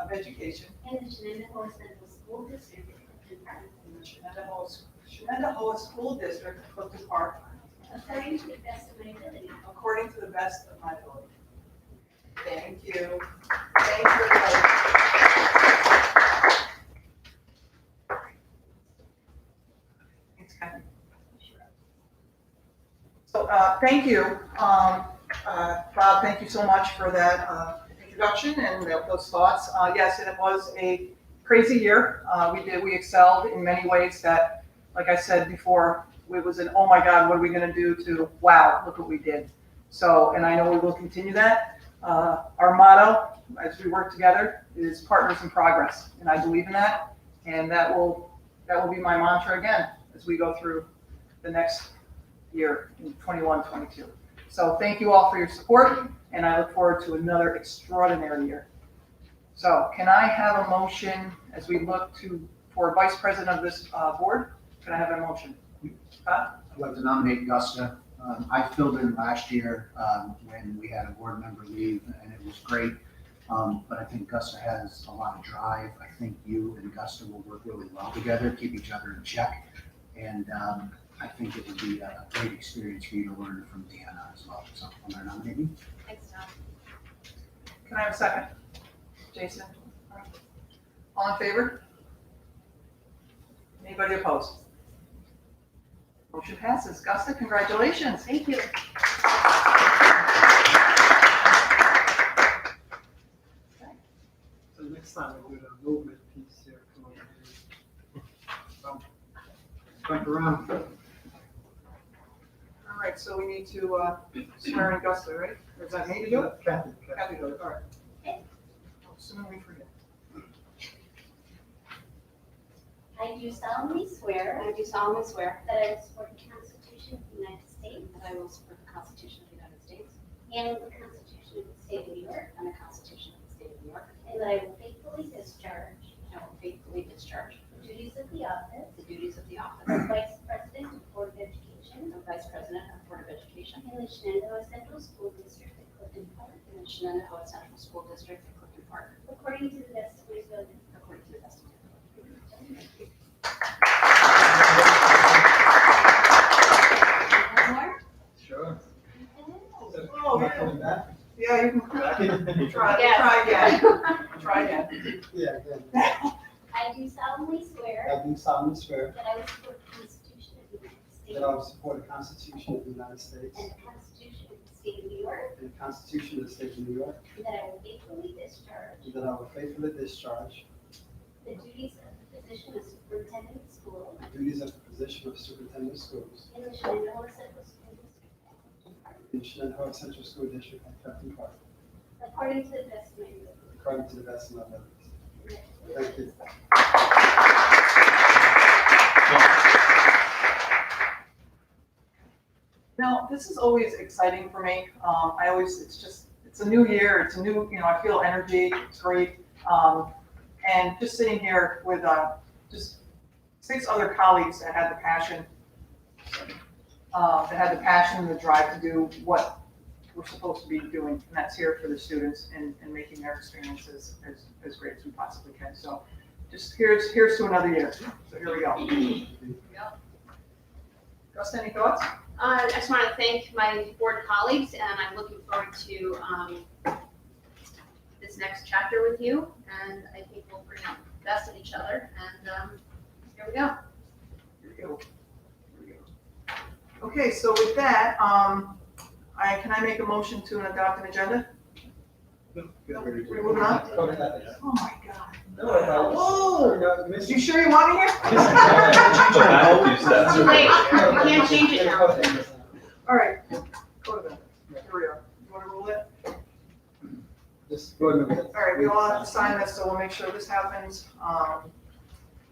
of Education in the Shenandoah Central School District of Clifton Park, in the Shenandoah, Shenandoah School District of Clifton Park according to the best of my ability. according to the best of my ability. Thank you. Thank you. everybody. Thanks, Kathy. So, uh, thank you, um, uh, Bob, thank you so much for that, uh, introduction and tho- those thoughts. Uh, yes, it was a crazy year. Uh, we did, we excelled in many ways that, like I said before, it was an, oh my God, what are we gonna do to, wow, look what we did. So, and I know we will continue that. Uh, our motto, as we work together, is partners in progress, and I believe in that. And that will, that will be my mantra again, as we go through the next year in 21, 22. So thank you all for your support, and I look forward to another extraordinary year. So can I have a motion as we look to, for vice president of this uh, board? Can I have a motion? I'd like to nominate Gusta. Um, I filled in last year um, when we had a board member leave, and it was great. Um, But I think Gusta has a lot of drive. I think you and Gusta will work really well together, keep each other in check. And um, I think it would be a great experience for you to learn from Deanna as well. So I'm going to nominate you. Thanks, Tom. Can I have a second? Jason? All in favor? Anybody opposed? Motion passes. Gusta, congratulations. Thank you. So next time we'll do the movement piece here. come on. So, Back around. All right, so we need to uh, swear in Gusta, right? Or is that me to do it? Kathy, Kathy. Kathy, do it, all right. Soon we forget. I do solemnly swear I do solemnly swear that I will support the Constitution of the United States that I will support the Constitution of the United States and the Constitution of the State of New York, and the Constitution of the State of New York, and that I will faithfully discharge and I will faithfully discharge the duties of the office the duties of the office of Vice President of Board of Education of Vice President of Board of Education in the Shenandoah Central School District of Clifton Park, in the Shenandoah Central School District of Clifton Park, according to the best of my ability. according to the best of my ability. One more? Sure. Oh, Not yeah. coming back. Yeah, you can try, try again, Yes. try again. Yeah, again. I do solemnly swear I do solemnly swear that I will support the Constitution of the United States that I will support the Constitution of the United States and the Constitution of the State of New York, and the Constitution of the State of New York, and that I will faithfully discharge and that I will faithfully discharge the duties of the position of Superintendent of School the duties of the position of Superintendent of Schools in the Shenandoah Central School District at Clifton Park, in Shenandoah Central School District at Captain Park, according to the best of my ability. according to the best of my abilities. Thank you. Now, this is always exciting for me. Um, I always, it's just, it's a new year, it's a new, you know, I feel energy, it's great. Um, and just sitting here with, uh, just six other colleagues that had the passion, uh, that had the passion and the drive to do what we're supposed to be doing, and that's here for the students and, and making their experiences as, as great as we possibly can. So just here's, here's to another year. So here we go. Gus, any thoughts? Uh, I just want to thank my board colleagues, and I'm looking forward to um, this next chapter with you. And I think we'll bring out the best in each other. And um, here we go. Here we go. Here we go. Okay, so with that, um, I, can I make a motion to adopt an agenda? We're moving on? Go ahead. Oh my God. No, I thought- Whoa, No, miss- you sure you want to hear? But I hope you said- Too late. You can't change it now. All right, go to bed. Here we are. You want to roll it? Just go ahead. All right, we all have to sign this, so we'll make sure this happens. Um,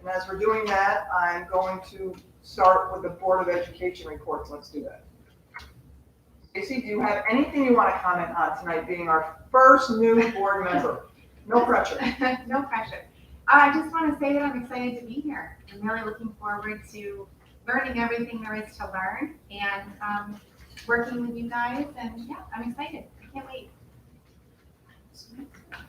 and as we're doing that, I'm going to start with the Board of Education reports. Let's do that. Stacy, do you have anything you want to comment on tonight, being our first new board member? No pressure. No pressure. Uh, I just want to say that I'm excited to be here. I'm really looking forward to learning everything there is to learn and um, working with you guys. And yeah, I'm excited. I can't wait.